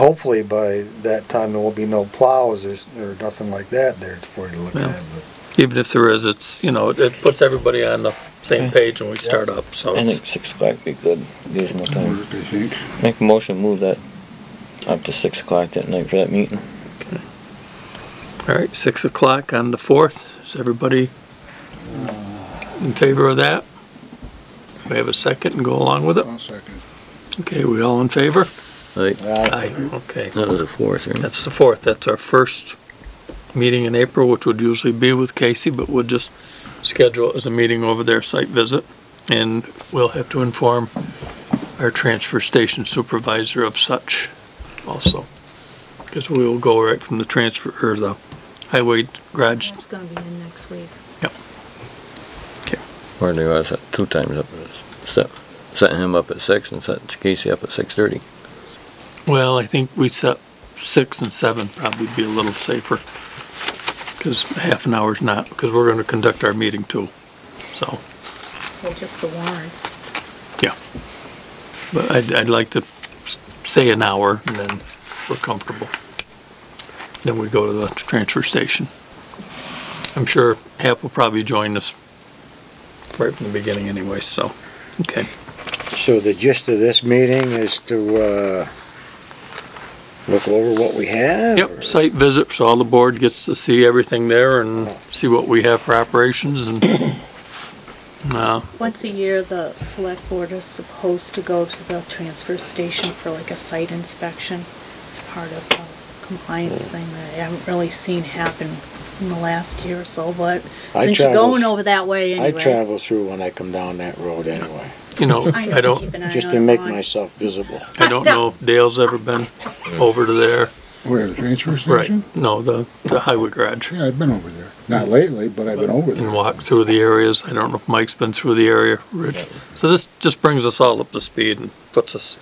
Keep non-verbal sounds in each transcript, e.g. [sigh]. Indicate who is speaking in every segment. Speaker 1: Hopefully by that time, there will be no plows or, s- or nothing like that there for you to look
Speaker 2: Yeah.
Speaker 1: at, but.
Speaker 2: Even if there is, it's, you know, it- it puts everybody on the same page when we start up, so.
Speaker 3: I
Speaker 2: it's-
Speaker 3: think six o'clock be good, gives them
Speaker 4: uh,
Speaker 3: time.
Speaker 5: work, I think.
Speaker 3: Make a motion, move that up to six o'clock that night for that meeting.
Speaker 2: All right, six o'clock on the fourth. Is everybody in favor of that? We have a second and go along with it?
Speaker 5: I'll second.
Speaker 2: Okay, we all in favor?
Speaker 3: Right,
Speaker 2: Aye. Okay,
Speaker 3: that was a fourth, right?
Speaker 2: that's the fourth. That's our first meeting in April, which would usually be with Casey, but we'll just schedule it as a meeting over there, site visit. And we'll have to inform our transfer station supervisor of such also. Because we will go right from the transfer, or the highway garage
Speaker 6: That's gonna be in next week.
Speaker 3: Or they was at two times up, set, set him up at six and set Casey up at six thirty.
Speaker 2: Well, I think we set six and seven probably be a little safer, because half an hour's not, because we're gonna conduct our meeting too, so,
Speaker 6: Well, just the warrants.
Speaker 2: but I'd, I'd like to s- say an hour, and then we're comfortable. Then we go to the transfer station. I'm sure half will probably join us right from the beginning anyway, so, okay.
Speaker 4: So the gist of this meeting is to, uh, look over what we have?
Speaker 2: Yep, site visit, so all the board gets to see everything there and see what we have for operations and, uh,
Speaker 6: Once a year, the select board is supposed to go to the transfer station for like a site inspection. It's part of the compliance
Speaker 4: Hmm.
Speaker 6: thing that I haven't really seen happen in the last year or so, but
Speaker 4: I
Speaker 6: since you're
Speaker 4: travel-
Speaker 6: going over that way
Speaker 4: I
Speaker 6: anyway.
Speaker 4: travel through when I come down that road anyway,
Speaker 2: you know,
Speaker 6: I
Speaker 2: I
Speaker 6: know,
Speaker 2: don't,
Speaker 6: keep an eye
Speaker 4: just
Speaker 6: on
Speaker 4: to
Speaker 6: it
Speaker 4: make
Speaker 6: on-
Speaker 4: myself visible.
Speaker 2: I don't know if Dale's ever been over to there.
Speaker 5: Where, the transfer
Speaker 2: Right,
Speaker 5: station?
Speaker 2: no, the, the highway garage
Speaker 5: Yeah, I've been over there. Not lately, but I've been over
Speaker 2: and
Speaker 5: there.
Speaker 2: walk through the areas. I don't know if Mike's been through the area, Rich. So this just brings us all up to speed and puts us,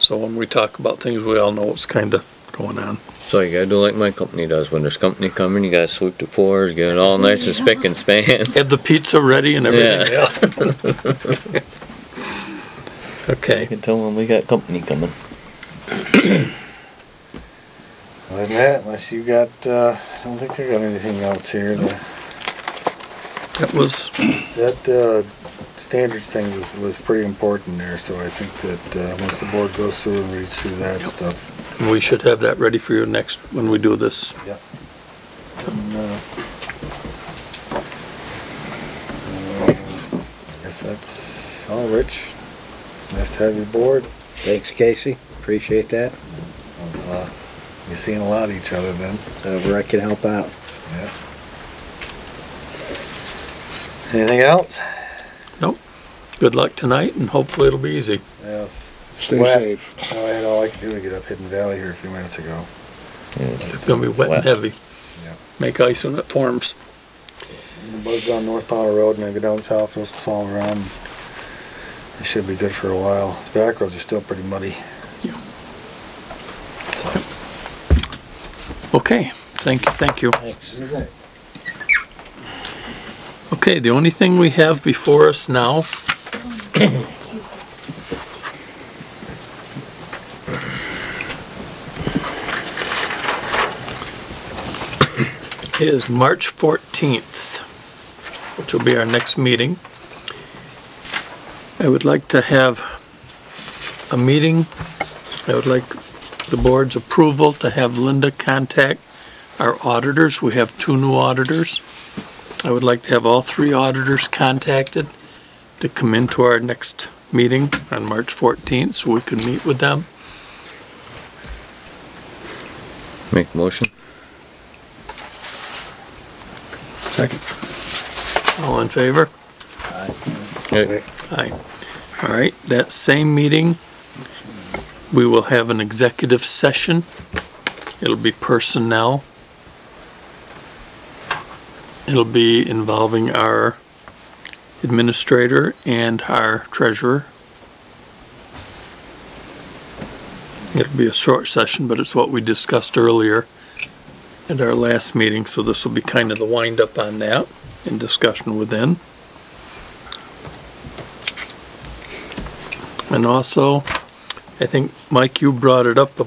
Speaker 2: so when we talk about things, we all know what's kinda going on.
Speaker 3: So you gotta do like my company does, when there's company coming, you gotta sweep the floors, get it all nice and spick and span.
Speaker 2: Have the pizza ready and everything, yeah.
Speaker 3: You
Speaker 2: [laughs] Okay,
Speaker 3: can tell when we got company coming.
Speaker 1: Other than that, unless you got, uh, I don't think I got anything else here. The-
Speaker 2: that was
Speaker 1: That, uh, standards thing was, was pretty important there, so I think that, uh, once the board goes through and reads through that
Speaker 2: Yep.
Speaker 1: stuff.
Speaker 2: We should have that ready for you next, when we do this.
Speaker 1: and, uh, uh, Guess that's all, Rich. Nice to have you aboard.
Speaker 4: Thanks, Casey, appreciate that,
Speaker 1: Uh, You're seeing a lot of each other then,
Speaker 4: however Uh, I can help out.
Speaker 1: yeah. Anything else?
Speaker 2: Good luck tonight, and hopefully it'll be easy.
Speaker 1: Yes.
Speaker 5: Stay
Speaker 1: Wet.
Speaker 5: safe.
Speaker 1: I had all I could do to get up Hidden Valley here a few minutes ago.
Speaker 2: It's gonna be wet and heavy.
Speaker 1: Yeah.
Speaker 2: Make ice when it forms.
Speaker 1: Buzz down North Powder Road and then go down south, roast us all around. It should be good for a while. The back roads are still pretty muddy.
Speaker 2: Yeah.
Speaker 1: So.
Speaker 2: Okay, thank you, thank you.
Speaker 4: Thanks.
Speaker 2: Okay, the only thing we have before us now is March 14th, which will be our next meeting. I would like to have a meeting. I would like the board's approval to have Linda contact our auditors. We have two new auditors. I would like to have all three auditors contacted to come into our next meeting on March 14th so we can meet with them.
Speaker 3: Make a motion.
Speaker 5: Second.
Speaker 2: All in favor?
Speaker 3: Right.
Speaker 2: Aye. All right, that same meeting, we will have an executive session. It'll be personnel. It'll be involving our administrator and our treasurer. It'll be a short session, but it's what we discussed earlier at our last meeting, so this will be kind of the wind-up on that and discussion within. And also, I think, Mike, you brought it up